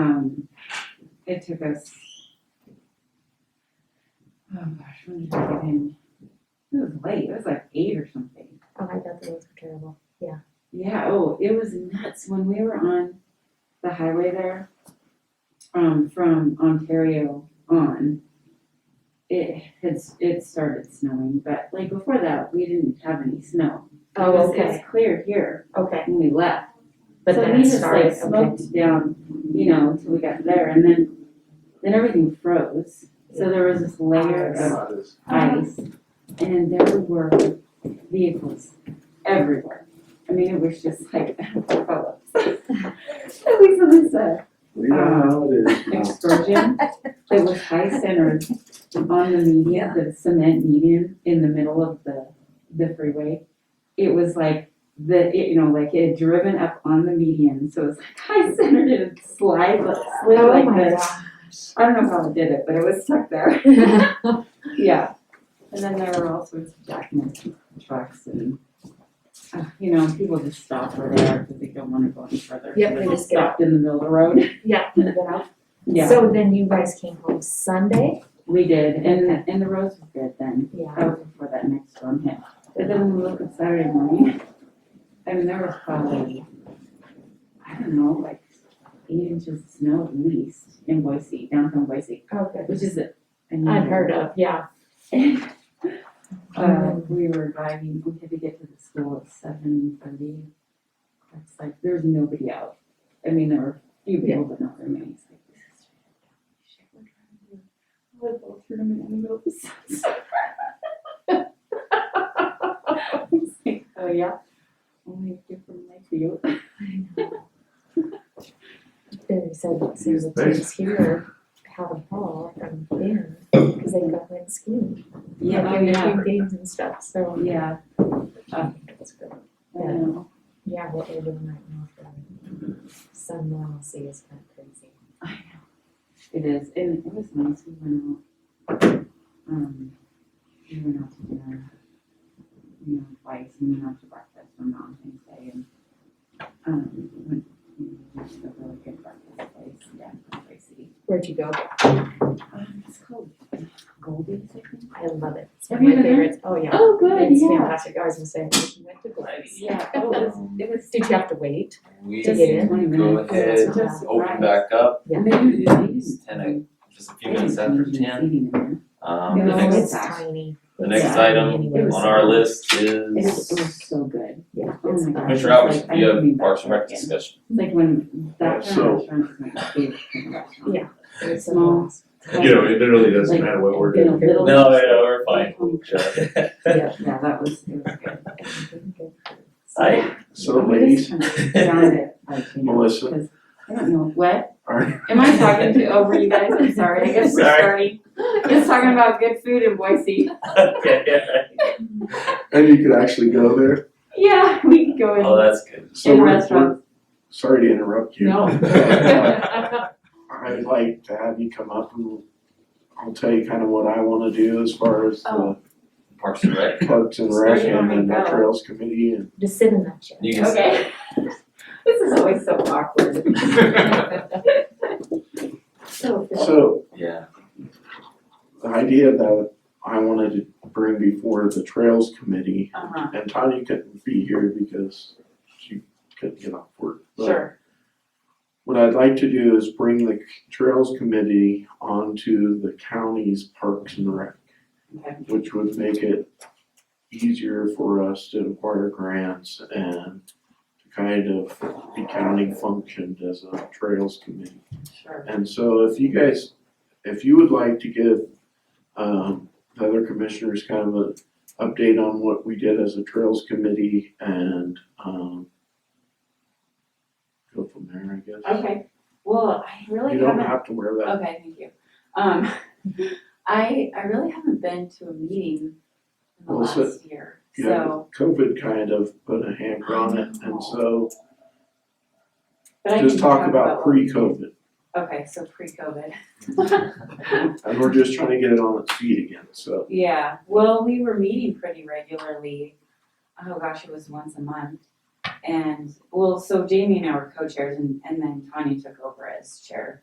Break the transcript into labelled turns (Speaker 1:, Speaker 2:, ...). Speaker 1: um, it took us, oh gosh, when did we get in? It was late, it was like eight or something.
Speaker 2: Oh, I thought the roads were terrible.
Speaker 1: Yeah, oh, it was nuts when we were on the highway there, um, from Ontario on. It had, it started snowing, but like before that, we didn't have any snow. It
Speaker 2: Oh,
Speaker 1: was- It's clear here
Speaker 2: okay.
Speaker 1: when we left.
Speaker 2: But
Speaker 1: So
Speaker 2: then
Speaker 1: we
Speaker 2: it
Speaker 1: just, like,
Speaker 2: started, okay.
Speaker 1: Smoked down, you know, till we got there and then, then everything froze. So there was this layer of ice, and there were vehicles everywhere. I mean, it was just like, Phillips. It was a
Speaker 3: We know how it is now.
Speaker 1: extortion. It was high centered on the median, the cement median in the middle of the, the freeway. It was like the, it, you know, like it had driven up on the median, so it was like high centered and slide, slid
Speaker 2: Oh
Speaker 1: like
Speaker 2: my
Speaker 1: this. I don't know how it did it, but it was stuck there.
Speaker 2: gosh.
Speaker 1: Yeah, and then there were all sorts of jackknife trucks and, uh, you know, people just stop where they are because they don't wanna go any further.
Speaker 2: Yep,
Speaker 1: So
Speaker 2: they just get out.
Speaker 1: Stopped in the middle of the road.
Speaker 2: Yeah, you get out.
Speaker 1: Yeah,
Speaker 2: So then you guys came home Sunday?
Speaker 1: we did, and, and the roads were good then,
Speaker 2: Yeah.
Speaker 1: that was before that next storm hit. But then when we look at Saturday morning, I mean, there was probably, I don't know, like eight inches of snow at least in Boise, downtown Boise,
Speaker 2: Oh, good.
Speaker 1: which is, a- I mean.
Speaker 2: Unheard of, yeah.
Speaker 1: Uh, we were driving, we had to get to the school at seven thirty. It's like, there's nobody out. I mean, there were a few people, but not very many. It's like, this is shit, we're driving to a volleyball tournament in the middle of the sunset. It's like, oh yeah, only a different life view.
Speaker 2: They said, there's a kids here have a call from Ben because they got went skiing.
Speaker 1: Yeah,
Speaker 2: Like,
Speaker 1: oh
Speaker 2: in
Speaker 1: yeah,
Speaker 2: between games and stuff, so.
Speaker 1: yeah,
Speaker 2: That's good.
Speaker 1: I know.
Speaker 2: Yeah, what they're doing right now for some normalcy is kind of crazy.
Speaker 1: I know. It is, and it was nice, we went out, um, we went out to dinner, you know, twice, and then out to breakfast on Mountain Day, and, um, we went, we went to a really good breakfast place, yeah, in Bay City.
Speaker 2: Where'd you go?
Speaker 1: Um, it's called Goldie's, I think.
Speaker 2: I love it. It's
Speaker 1: Have
Speaker 2: one of
Speaker 1: you been
Speaker 2: my
Speaker 1: there?
Speaker 2: favorites. Oh, yeah.
Speaker 1: Oh, good,
Speaker 2: It's
Speaker 1: yeah.
Speaker 2: fantastic. I was gonna say, you went to Gladys.
Speaker 1: Yeah, oh, it was, it was
Speaker 2: Did you have to wait?
Speaker 4: We
Speaker 2: To get in?
Speaker 1: just twenty
Speaker 4: go
Speaker 1: minutes.
Speaker 4: ahead,
Speaker 1: Just a
Speaker 4: open
Speaker 1: surprise.
Speaker 4: back up,
Speaker 2: Yeah.
Speaker 1: And they didn't-
Speaker 4: it's
Speaker 1: they
Speaker 4: ten,
Speaker 1: didn't-
Speaker 4: o- just a few minutes after
Speaker 1: they didn't have
Speaker 4: ten.
Speaker 1: seating in there.
Speaker 4: Um,
Speaker 1: It
Speaker 4: the
Speaker 1: was
Speaker 2: Oh,
Speaker 4: next,
Speaker 2: it's
Speaker 1: always- back.
Speaker 2: tiny.
Speaker 4: the
Speaker 2: It's
Speaker 4: next
Speaker 2: tiny
Speaker 4: item
Speaker 2: anyway.
Speaker 1: was-
Speaker 4: on our list
Speaker 1: It was, it was
Speaker 4: is
Speaker 1: so good.
Speaker 2: Yeah,
Speaker 1: Oh my
Speaker 2: it's fine.
Speaker 1: gosh.
Speaker 4: Commissioner Roberts,
Speaker 1: Like, I
Speaker 4: do you
Speaker 1: haven't been
Speaker 4: have
Speaker 1: back
Speaker 4: Parks and
Speaker 1: there
Speaker 4: Rec
Speaker 1: again.
Speaker 4: discussion?
Speaker 1: Like when that kind
Speaker 3: So-
Speaker 1: of restaurant is my favorite kind of restaurant.
Speaker 2: Yeah. It's a
Speaker 1: Small.
Speaker 2: lot.
Speaker 3: You know, it literally doesn't
Speaker 1: Like,
Speaker 3: matter what we're
Speaker 1: been a
Speaker 3: doing.
Speaker 1: little-
Speaker 4: No, yeah, we're fine.
Speaker 1: Um,
Speaker 2: Yeah.
Speaker 1: Yeah, that was, it was good.
Speaker 4: I,
Speaker 3: So
Speaker 1: We just
Speaker 3: ladies,
Speaker 1: kind of found it, like, you know,
Speaker 3: Melissa.
Speaker 1: because I don't know, what?
Speaker 3: are,
Speaker 1: Am I talking to, over you guys? I'm sorry, I guess we're starting. Just talking about good food in Boise.
Speaker 3: and you could actually go there,
Speaker 1: Yeah, we can go in.
Speaker 4: oh, that's good.
Speaker 3: so
Speaker 1: In
Speaker 3: we're- we're-
Speaker 1: restaurants.
Speaker 3: sorry to interrupt you. Uh,
Speaker 1: No.
Speaker 3: I'd like to have you come up and I'll tell you kind of what I wanna do as far as the
Speaker 1: Oh.
Speaker 4: Parks and Rec,
Speaker 3: Parks and
Speaker 1: So
Speaker 3: Rec
Speaker 1: you want
Speaker 3: and
Speaker 1: me
Speaker 3: then the
Speaker 1: to go?
Speaker 3: Trails Committee and.
Speaker 2: Just sit in that chair.
Speaker 4: you can.
Speaker 1: Okay. This is always so awkward.
Speaker 2: So,
Speaker 3: So
Speaker 4: Yeah,
Speaker 3: the idea that I wanted to bring before the Trails Committee,
Speaker 1: Uh-huh,
Speaker 3: and Tanya couldn't be here because she couldn't get off work. but-
Speaker 1: sure.
Speaker 3: What I'd like to do is bring the Trails Committee onto the county's Parks and Rec,
Speaker 1: Okay.
Speaker 3: which would make it easier for us to acquire grants and to kind of the county functioned as a Trails Committee.
Speaker 1: Sure.
Speaker 3: And so if you guys, if you would like to give, um, the other commissioners kind of an update on what we did as a Trails Committee and, um, go from there, I guess.
Speaker 1: Okay, well, I really
Speaker 3: You don't
Speaker 1: haven't
Speaker 3: have to wear that.
Speaker 1: Okay, thank you. Um, I, I really haven't been to a meeting in the
Speaker 3: Well, so-
Speaker 1: last year,
Speaker 3: Yeah,
Speaker 1: so,
Speaker 3: COVID kind of put a hamper on it,
Speaker 1: I know.
Speaker 3: and so
Speaker 1: but I can
Speaker 3: just talk about
Speaker 1: what we
Speaker 3: pre-COVID.
Speaker 1: did. Okay, so pre-COVID.
Speaker 3: And we're just trying to get it on its feet again, so.
Speaker 1: Yeah, well, we were meeting pretty regularly, oh gosh, it was once a month. And, well, so Jamie and I were co-chairs and, and then Tanya took over as chair.